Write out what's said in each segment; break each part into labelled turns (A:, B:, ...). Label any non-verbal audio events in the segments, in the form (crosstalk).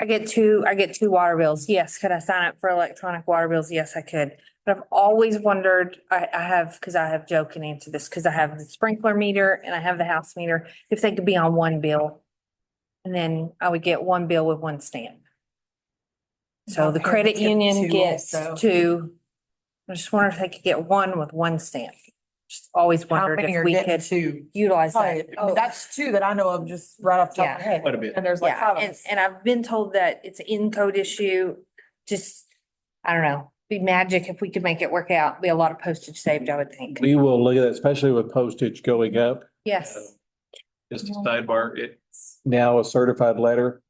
A: I get two, I get two water bills. Yes, could I sign up for electronic water bills? Yes, I could. But I've always wondered, I, I have, because I have Joe can answer this, because I have the sprinkler meter and I have the house meter, if they could be on one bill. And then I would get one bill with one stamp. So the
B: Okay,
A: credit
B: get
A: union
B: two
A: gets
B: also.
A: two. I just wonder if they could get one with one stamp. Just always
B: How
A: wondered
B: many
A: if
B: are
A: we
B: getting
A: could
B: two?
A: utilize that.
B: Probably- oh, That's two that I know of just right off the top of my head.
C: Quite a bit.
B: And there's like
A: Yeah,
B: five of
A: and,
B: us.
A: and I've been told that it's an in-code issue, just, I don't know, be magic if we could make it work out, be a lot of postage saved, I would think.
D: We will look at that, especially with postage going up.
A: Yes,
C: Just a sidebar, it,
D: Now a certified letter,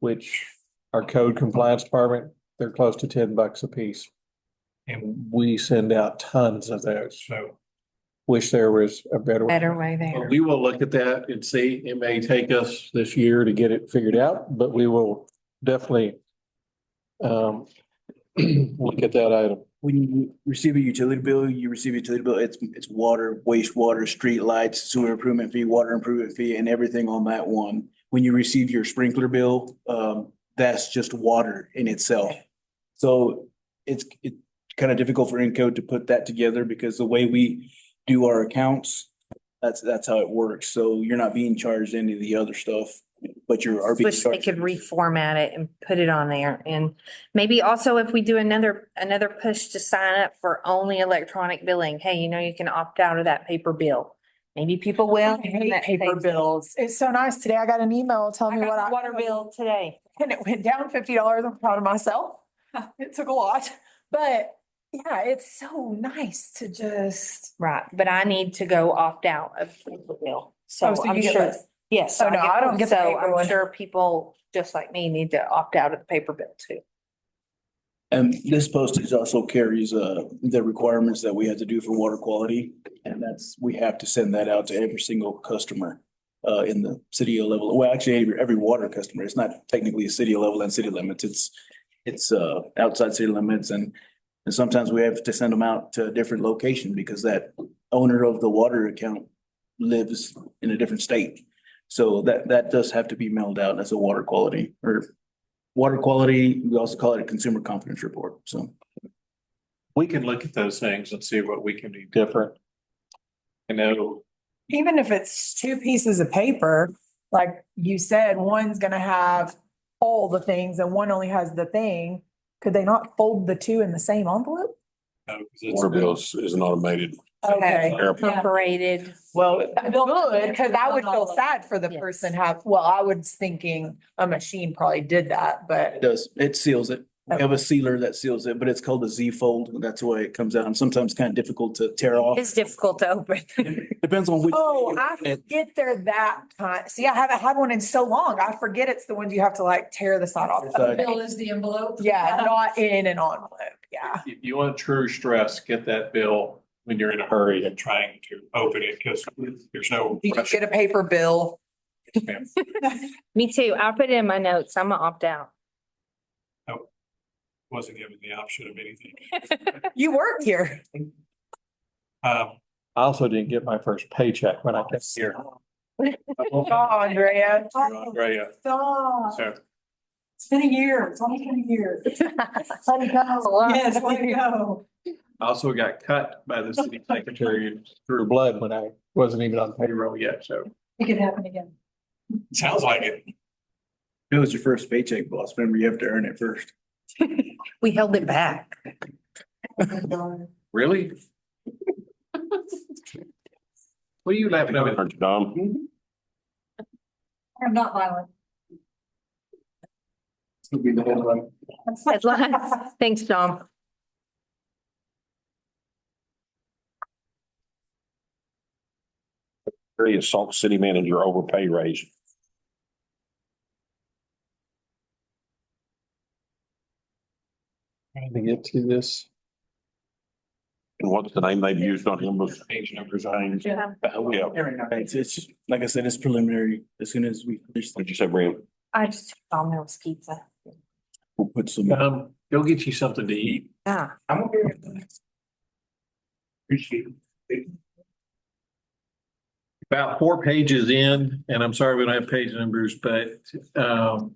D: which our code compliance department, they're close to ten bucks a piece. And we send out tons of those.
C: so,
D: Wish there was a better. way.
A: better way
C: but
A: there.
C: we will look at that and see.
D: It may take us this year to get it figured out, but we will definitely um, (clears throat) look at that item.
E: When you receive a utility bill, you receive a utility bill, it's, it's water, wastewater, street lights, sewer improvement fee, water improvement fee, and everything on that one. When you receive your sprinkler bill, um, that's just water in itself. So it's, it's kind of difficult for Encode to put that together because the way we do our accounts, that's, that's how it works. So you're not being charged any of the other stuff, but you are being
A: Wish they
E: charged.
A: could reformat it and put it on there and maybe also if we do another, another push to sign up for only electronic billing. Hey, you know, you can opt out of that paper bill. Maybe people will.
B: I hate
A: That
B: paper
A: saves-
B: bills. It's so nice. Today I got an email telling
A: I
B: me what
A: got
B: I.
A: a water bill today.
B: (laughs) And it went down fifty dollars. I'm proud of myself. (laughs) It took a lot, but yeah, it's so nice to just.
A: Right, but I need to go opt out of paper bill. So
B: Oh, so
A: I'm
B: you get
A: sure.
B: less.
A: Yes.
B: Oh, no, I don't get the
A: So
B: paper
A: I'm
B: one.
A: sure people just like me need to opt out of the paper bill too.
E: And this postage also carries uh the requirements that we had to do for water quality. And that's, we have to send that out to every single customer uh in the city of level. Well, actually, every, every water customer. It's not technically a city level and city limits. It's it's uh outside city limits and and sometimes we have to send them out to a different location because that owner of the water account lives in a different state. So that that does have to be mailed out as a water quality or water quality, we also call it a consumer confidence report, so.
C: We can look at those things and see what we can do.
D: Different.
C: I know,
B: Even if it's two pieces of paper, like you said, one's gonna have all the things and one only has the thing. Could they not fold the two in the same envelope?
C: uh, 'cause
F: Water
C: it's-
F: bills is an automated.
B: Okay.
F: airplane.
A: Incorporated.
E: Well,
B: Good, because I would feel sad for the
A: Yes.
B: person have, well, I was thinking a machine probably did that,
E: it
B: but.
E: does, it seals it. We have a sealer that seals it, but it's called a Z fold, and that's the way it comes out, and sometimes kind of difficult to tear off.
A: It's difficult to open. (laughs)
E: Depends on which.
B: Oh, I forget they're that kind. See, I haven't had one in so long. I forget it's the ones you have to like tear the side off.
E: Side.
B: Bill is the envelope. Yeah, (laughs) not in an envelope. Yeah.
C: If you want true stress, get that bill when you're in a hurry and trying to open it because there's no
B: You
C: pressure.
B: get a paper bill.
C: ma'am.
A: Me too. I'll put it in my notes. I'm gonna opt (laughs) out.
C: Wasn't given the option of anything.
B: You work here.
C: Um,
D: I also didn't get my first paycheck when I came here.
B: Oh, Andrea.
C: Andrea,
B: Stop.
C: so
B: It's been a year. It's only been a year. Let it go. Yes, let it go.
C: I also got cut by the city secretary
D: Through
C: through
D: blood when I wasn't even on payroll.
C: payroll yet, so.
B: It could happen again.
C: Sounds like it.
E: It was your first paycheck, boss, remember you have to earn it first.
A: We held it back.
C: Really? (laughs) What are you laughing at?
F: Aren't you, Dom?
B: I'm not violent.
E: It'll be the whole run.
A: (laughs) Headline. Thanks, Dom.
F: Three is Sauk City Manager overpay raise.
D: Trying to get to this.
F: And what's the name they've used on him was
C: Page numbers.
F: resigned?
A: Yeah.
F: Yeah,
E: It's, it's, like I said, it's preliminary, as soon as we finish,
F: what'd you say, Brent?
A: I just, Dom loves pizza.
E: we'll put some.
C: Um, go get you something to eat.
A: Ah,
E: I'm okay with that.
C: Appreciate it. About four pages in, and I'm sorry we don't have page numbers, but um